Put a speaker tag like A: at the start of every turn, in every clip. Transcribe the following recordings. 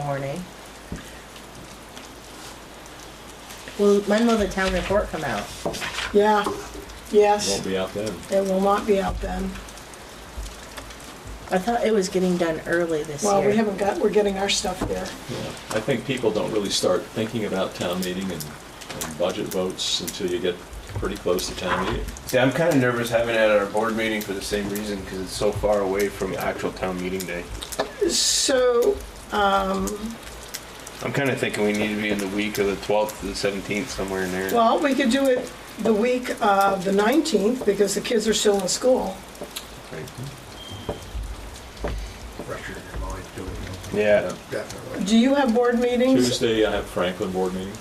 A: morning. Well, when will the town report come out?
B: Yeah, yes,
C: Won't be out then.
B: it will not be out then.
A: I thought it was getting done early this year.
B: Well, we haven't got, we're getting our stuff there.
C: I think people don't really start thinking about town meeting and, and budget votes until you get pretty close to town meeting.
D: See, I'm kind of nervous having it at our board meeting for the same reason, because it's so far away from actual town meeting day.
B: So,
D: I'm kind of thinking we need to be in the week of the 12th to the 17th, somewhere in there.
B: well, we could do it the week of the 19th because the kids are still in school.
D: Right.
E: pressure in your mind doing it,
D: Yeah,
E: definitely.
B: Do you have board meetings?
C: Tuesday, I have Franklin board meeting.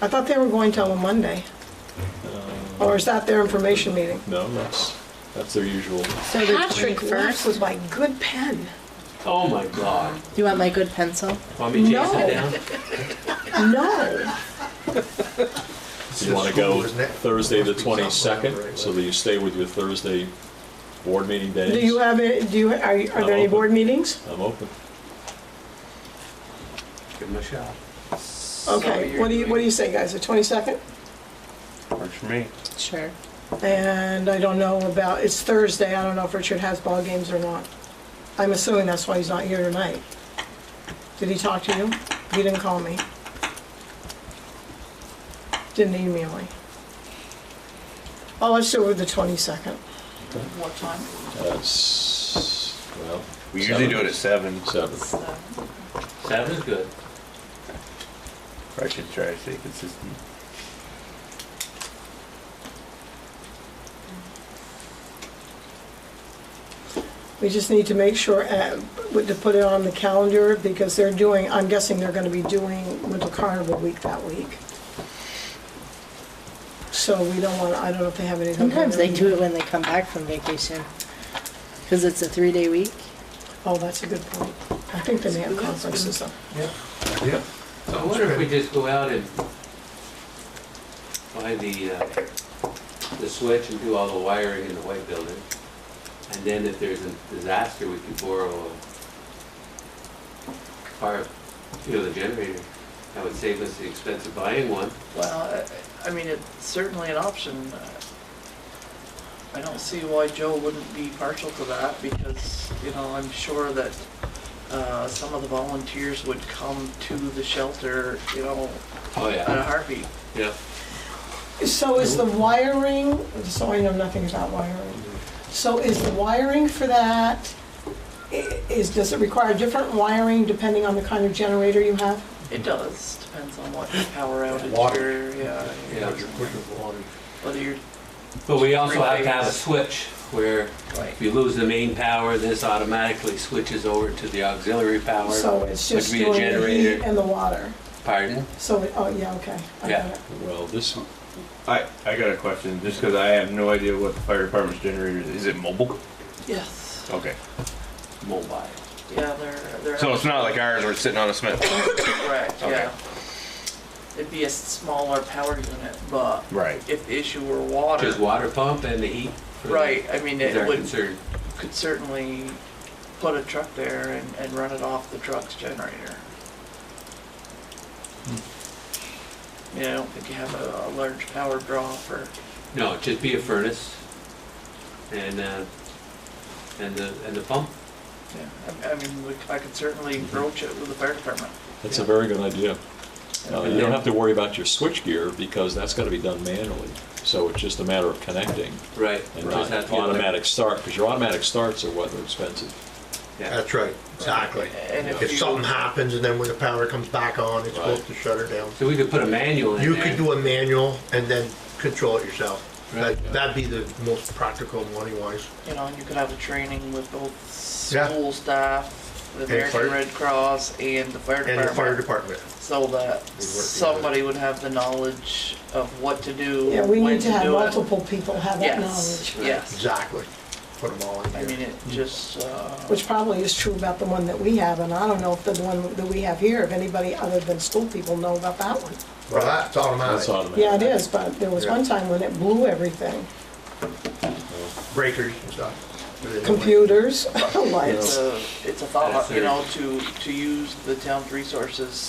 B: I thought they were going till a Monday. Or is that their information meeting?
C: No, that's, that's their usual.
A: So the
B: Patrick left
A: 21st?
B: with my good pen.
F: Oh my god.
A: Do you want my good pencil?
F: Want me to chase
B: No.
F: it down?
B: No,
C: You want to go
E: Isn't it?
C: Thursday, the
E: Must be something on the
C: 22nd,
E: right
C: so that you stay with your Thursday board meeting days.
B: do you have, it? do you, are are there any board meetings?
C: I'm open.
F: Give him a shot.
B: Okay, what do you, what do you say, guys, the 22nd?
D: works for me.
A: Sure.
B: And I don't know about, it's Thursday, I don't know if Richard has ball games or not. I'm assuming that's why he's not here tonight. Did he talk to you? He didn't call me. Didn't email me. Oh, let's do it with the 22nd.
G: What time?
C: That's, Uh, well.
D: We usually do it at 7.
C: Seven.
F: Seven's good.
D: I should try to stay consistent.
B: We just need to make sure, uh, to put it on the calendar, because they're doing, I'm guessing they're gonna be doing Winter Carnival Week that week. So we don't want, I don't know if they have anything. on
A: Sometimes
B: their-
A: they do it when they come back from vacation. Because it's a three-day week.
B: Oh, that's a good point. I think they may have conferences though.
E: Yeah,
F: So I wonder if we just go out and buy the, uh, the switch and do all the wiring in the white building. And then if there's a disaster, we could borrow a fire, you know, the generator. That would save us the expense of buying one.
G: Well, I I mean, it's certainly an option. I don't see why Joe wouldn't be partial to that because, you know, I'm sure that uh, some of the volunteers would come to the shelter, you know,
F: Oh,
G: at a
F: yeah,
G: heartbeat.
F: yeah.
B: So is the wiring, so I know nothing about wiring. So is the wiring for that, i- is, does it require different wiring depending on the kind of generator you have?
G: It does, depends on what power outage
E: Water.
G: you're, yeah,
F: Yeah.
E: What you're pushing for.
G: whether you're,
F: But we also have to have a switch where
G: right.
F: If you lose the main power, this automatically switches over to the auxiliary power.
B: So it's just
F: Would be a
B: doing the heat
F: generator.
B: and the water.
F: Pardon?
B: So, it- oh, yeah, okay. I got
F: Yeah.
B: it.
C: Well, this,
D: I, I got a question, just because I have no idea what the fire department's generator is. Is it mobile?
G: Yes,
D: Okay.
F: Mobile.
G: yeah, they're, they're.
D: So it's not like ours, we're sitting on a Smith.
G: Correct,
D: Okay.
G: yeah. It'd be a smaller power unit, but
D: Right.
G: if the issue were water,
F: Just water pump and the heat. for the-
G: right, I mean,
F: Is
G: it
F: our
G: would,
F: concern.
G: could certainly put a truck there and, and run it off the truck's generator.
E: Hmm.
G: Yeah, I don't think you have a, a large power draw for,
F: No, just be a furnace and, uh, and the, and the pump.
G: yeah, I, I mean, we- I could certainly
E: Hmm.
G: broach it with the fire department.
C: that's a very good idea. Uh, You don't have to worry about your switchgear because that's got to be done manually. So it's just a matter of connecting
F: Right.
C: and
F: Just
C: not
F: have to get
C: automatic start, because your automatic starts are what are expensive.
F: the- Yeah.
E: That's right, exactly.
G: And if
E: If
G: you-
E: something happens and then when the power comes back on, it's supposed to shut her down.
F: So we could put a manual in there.
E: You could do a manual and then control it yourself.
F: Right.
E: That, that'd be the most practical money wise.
G: You know, and you could have a training with both
E: Yeah.
G: school staff, the
E: And
G: American
E: fire-
G: Red Cross, and the fire
E: And the fire
G: department.
E: department.
G: So that
E: together.
G: somebody would have the knowledge of what to do,
B: Yeah, we
G: when
B: need
G: to
B: to have
G: do it.
B: multiple people have that knowledge,
G: Yes, yes.
E: Exactly. Put them all in
G: I mean,
E: here.
G: it just, uh,
B: which probably is true about the one that we have, and I don't know if the one that we have here, if anybody other than school people know about that one.
E: Well, that's
C: That's
E: automatic.
C: automatic.
B: Yeah, it is, but there was one time when it blew everything.
E: Breakers and stuff.
B: computers, lights.
G: It's a, it's a thought, you know, to, to use the town's resources